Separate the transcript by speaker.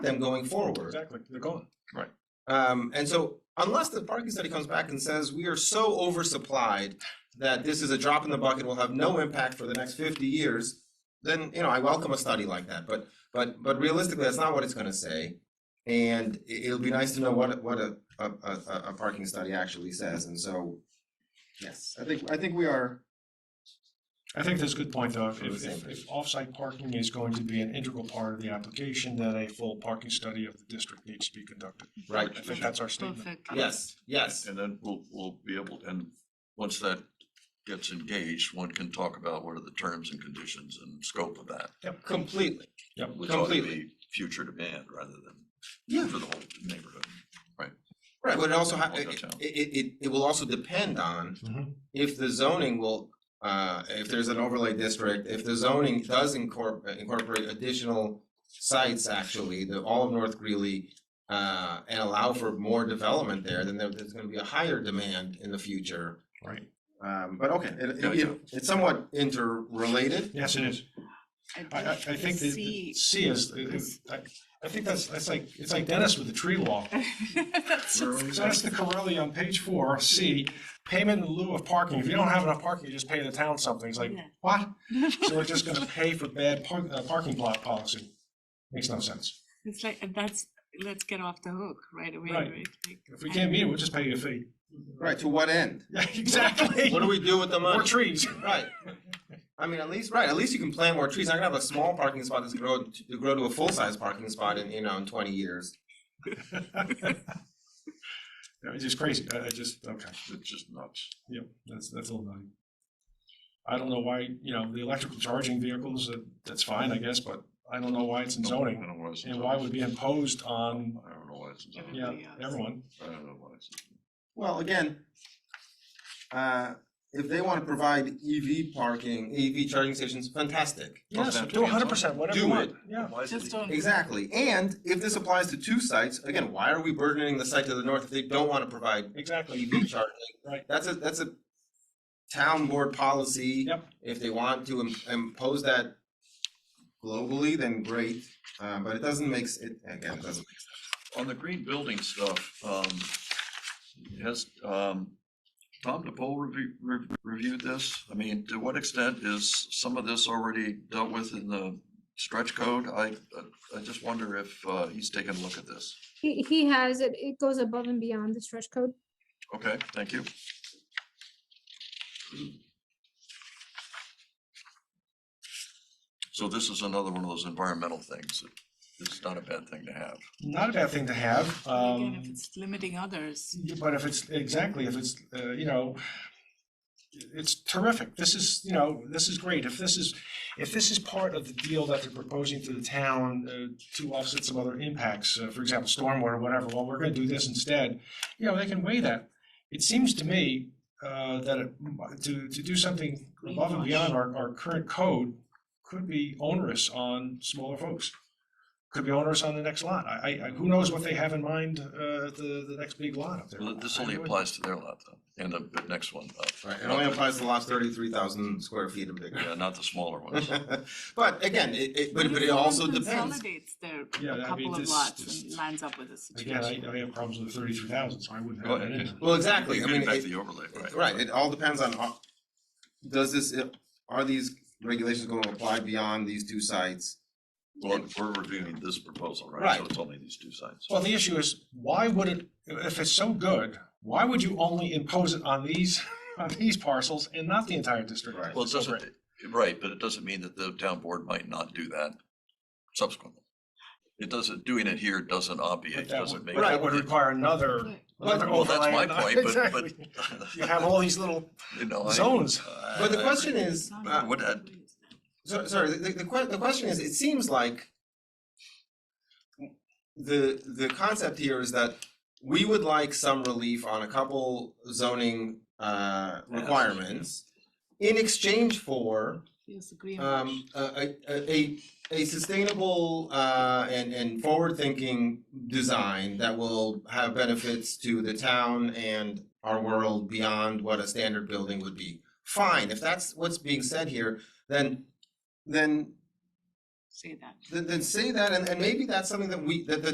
Speaker 1: them going forward.
Speaker 2: Exactly, they're gone.
Speaker 1: Um, and so unless the parking study comes back and says, we are so oversupplied that this is a drop in the bucket, will have no impact for the next fifty years, then, you know, I welcome a study like that, but, but, but realistically, that's not what it's gonna say. And it, will be nice to know what, a- what a, a, a, a- a parking study actually says, and so, yes, I think, I think we are,
Speaker 2: I think that's a good point, though.
Speaker 1: On the
Speaker 2: If,
Speaker 1: same
Speaker 2: if,
Speaker 1: page.
Speaker 2: if off-site parking is going to be an integral part of the application, then a full parking study of the district needs to be conducted.
Speaker 1: right,
Speaker 2: I think that's our statement.
Speaker 3: Perfect.
Speaker 1: yes, yes,
Speaker 4: And then we'll, we'll be able, and once that gets engaged, one can talk about what are the terms and conditions and scope of that.
Speaker 1: completely,
Speaker 4: Which ought to
Speaker 1: Completely.
Speaker 4: be future demand rather
Speaker 1: Yeah.
Speaker 4: than for the whole neighborhood.
Speaker 1: right, but it also, ha-
Speaker 4: All
Speaker 1: it,
Speaker 4: downtown.
Speaker 1: it, it, it will also depend on if the zoning will, uh, if there's an overlay district, if the zoning does incorporate, incorporate additional sites actually, the, all of North Greeley, uh, and allow for more development there, then there, there's gonna be a higher demand in the future.
Speaker 2: Right.
Speaker 1: Um, but okay, it, it-
Speaker 4: Gotcha.
Speaker 1: it's somewhat interrelated.
Speaker 2: Yes, it is. I, I, I think that the
Speaker 3: C.
Speaker 2: C is, I, I think that's, that's like, it's like Dennis with the tree law.
Speaker 3: That's
Speaker 4: Where
Speaker 3: just-
Speaker 4: are we
Speaker 2: So that's
Speaker 4: at?
Speaker 2: the Corelli on page four, C, payment in lieu of parking. If you don't have enough parking, you just pay the town something. It's like,
Speaker 3: Yeah.
Speaker 2: what? So we're just gonna pay for bad park, uh, parking block policy. Makes no sense.
Speaker 3: It's like, and that's, let's get off the hook right away,
Speaker 2: Right.
Speaker 3: right? Like,
Speaker 2: If we can't meet it, we'll just pay you a fee.
Speaker 1: Right, to what end?
Speaker 2: Yeah, exactly.
Speaker 1: What do we do with the
Speaker 2: More
Speaker 1: money?
Speaker 2: trees.
Speaker 1: Right. I mean, at least, right, at least you can plant more trees. I'm gonna have a small parking spot that's grow, to grow to a full-size parking spot in, you know, in twenty years.
Speaker 2: No, It's just crazy. I, I just, okay.
Speaker 4: It's just nuts.
Speaker 2: Yep, that's, that's a little nutty. I don't know why, you know, the electrical charging vehicles, that, that's fine, I guess, but I don't know why it's in
Speaker 4: I
Speaker 2: zoning.
Speaker 4: don't know why it's in
Speaker 2: And why
Speaker 4: zoning.
Speaker 2: would be imposed on,
Speaker 4: I don't know why it's in zoning.
Speaker 2: yeah,
Speaker 3: Everybody else.
Speaker 2: everyone.
Speaker 4: I don't know why it's. in zoning.
Speaker 1: Well, again, uh, if they want to provide EV parking, EV charging stations, fantastic.
Speaker 2: Yes,
Speaker 4: have to
Speaker 2: do
Speaker 4: be in
Speaker 2: hundred percent, whatever
Speaker 1: Do
Speaker 2: you want.
Speaker 1: it.
Speaker 2: Yeah,
Speaker 4: Why is it-
Speaker 3: Just don't.
Speaker 1: Exactly. And if this applies to two sites, again, why are we burdening the site to the north if they don't want to provide
Speaker 2: exactly.
Speaker 1: EV charging?
Speaker 2: Right.
Speaker 1: That's a, that's a town board policy.
Speaker 2: Yep.
Speaker 1: If they want to im- impose that globally, then great, uh, but it doesn't make, s- it, again, it doesn't.
Speaker 4: On the green building stuff, um, has, um, Tom DePaul review, re- reviewed this? I mean, to what extent is some of this already dealt with in the stretch code? I, I just wonder if, uh, he's taken a look at this.
Speaker 5: He, he has it, it goes above and beyond the stretch code.
Speaker 4: Okay, thank you. So this is another one of those environmental things. It's not a bad thing to have.
Speaker 2: Not a bad thing to have,
Speaker 3: But Again,
Speaker 2: um,
Speaker 3: if it's limiting others,
Speaker 2: yeah, but if it's, exactly, if it's, uh, you know, it's terrific. This is, you know, this is great. If this is, if this is part of the deal that they're proposing to the town uh, to offset some other impacts, uh, for example, stormwater, whatever, well, we're gonna do this instead, you know, they can weigh that. It seems to me, uh, that it- to, to do something above and beyond our, our current code could be onerous on smaller folks. Could be onerous on the next lot. I, I, I- who knows what they have in mind, uh, at the, the next big lot up there.
Speaker 4: Well, This
Speaker 2: I- I
Speaker 4: only
Speaker 2: wouldn't-
Speaker 4: applies to their lot though, and the the next one. uh,
Speaker 1: Right, it only applies to lots thirty-three thousand square feet and bigger.
Speaker 4: Yeah, not the smaller ones.
Speaker 1: But again, it, it, but,
Speaker 3: Well,
Speaker 1: but
Speaker 3: if
Speaker 1: it also
Speaker 3: someone
Speaker 1: depends.
Speaker 3: Consolidates their,
Speaker 2: Yeah,
Speaker 3: a
Speaker 2: I mean,
Speaker 3: couple of
Speaker 2: this-
Speaker 3: lots
Speaker 2: this-
Speaker 3: and lines up with a
Speaker 2: Again, I,
Speaker 3: situation.
Speaker 2: I have problems with thirty-three thousand, so I wouldn't
Speaker 4: Go
Speaker 2: have that
Speaker 4: ahead.
Speaker 2: in. there.
Speaker 1: Well, exactly, I mean,
Speaker 4: Getting back
Speaker 1: it,
Speaker 4: to the overlay, right?
Speaker 1: Right, it all depends on, uh, does this, uh, are these regulations gonna apply beyond these two sites?
Speaker 4: Well, we're reviewing this proposal, right?
Speaker 1: Right.
Speaker 4: So it's only these two sites.
Speaker 2: Well, the issue is, why would it, if it's so good, why would you only impose it on these, on these parcels and not the entire district?
Speaker 1: Right.
Speaker 4: Well, it
Speaker 2: So
Speaker 4: doesn't, right, but it doesn't mean that the town board might not do that subsequently. It doesn't, doing it here doesn't
Speaker 2: But
Speaker 4: obviate,
Speaker 2: that would,
Speaker 4: doesn't make.
Speaker 2: but that would require another,
Speaker 3: Right.
Speaker 2: another
Speaker 4: Well, that's
Speaker 2: overlay
Speaker 4: my
Speaker 2: and-
Speaker 4: point, but, but.
Speaker 2: Exactly. You have all these little
Speaker 4: you know, I-
Speaker 2: zones.
Speaker 4: I-
Speaker 1: But the
Speaker 4: I-
Speaker 1: question is,
Speaker 3: Sounds
Speaker 4: uh,
Speaker 3: like
Speaker 4: what
Speaker 3: they're
Speaker 4: that-
Speaker 3: doing that.
Speaker 1: so, sorry, the, the, que- the question is, it seems like the, the concept here is that we would like some relief on a couple zoning, uh, requirements in exchange for
Speaker 3: Yes, agree on that.
Speaker 1: um, a, a, a, a sustainable, uh, and, and forward-thinking design that will have benefits to the town and our world beyond what a standard building would be. Fine, if that's what's being said here, then, then
Speaker 3: say that.
Speaker 1: Then, then say that, and, and maybe that's something that we, that the